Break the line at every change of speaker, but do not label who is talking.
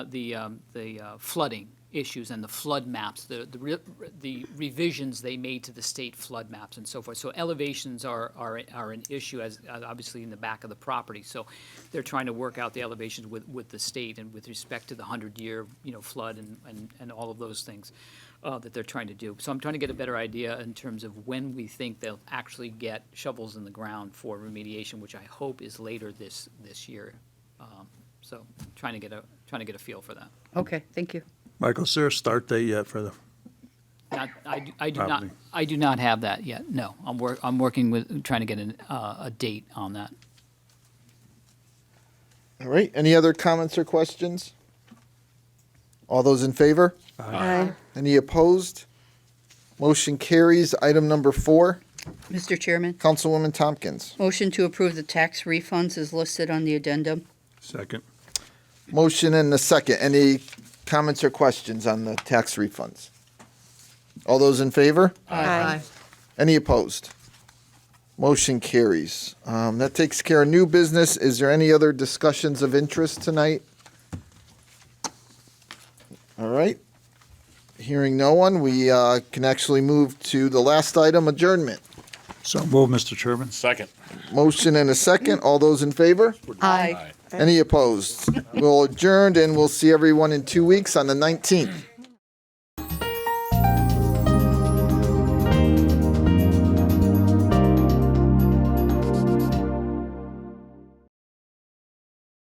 the, um, the uh, flooding issues and the flood maps, the, the re- the revisions they made to the state flood maps and so forth. So elevations are, are, are an issue as, uh, obviously in the back of the property. So they're trying to work out the elevations with, with the state and with respect to the hundred-year, you know, flood and, and, and all of those things uh, that they're trying to do. So I'm trying to get a better idea in terms of when we think they'll actually get shovels in the ground for remediation, which I hope is later this, this year. Um, So trying to get a, trying to get a feel for that.
Okay, thank you.
Michael, is there a start date yet for the,
Not, I, do- I do not,
Probably.
I do not have that yet, no. I'm work, I'm working with, trying to get an, uh, a date on that.
All right. Any other comments or questions? All those in favor?
Aye.
Any opposed? Motion carries. Item number four,
Mr. Chairman,
Councilwoman Tompkins.
motion to approve the tax refunds is listed on the addendum.
second?
Motion and a second. Any comments or questions on the tax refunds? All those in favor?
Aye.
Any opposed? Motion carries. Um, that takes care of new business. Is there any other discussions of interest tonight? All right. Hearing no one, we uh, can actually move to the last item adjournment.
So move, Mr. Chairman.
Second.
Motion and a second. All those in favor?
Aye.
Aye.
Any opposed? We'll adjourn and we'll see everyone in two weeks on the 19th.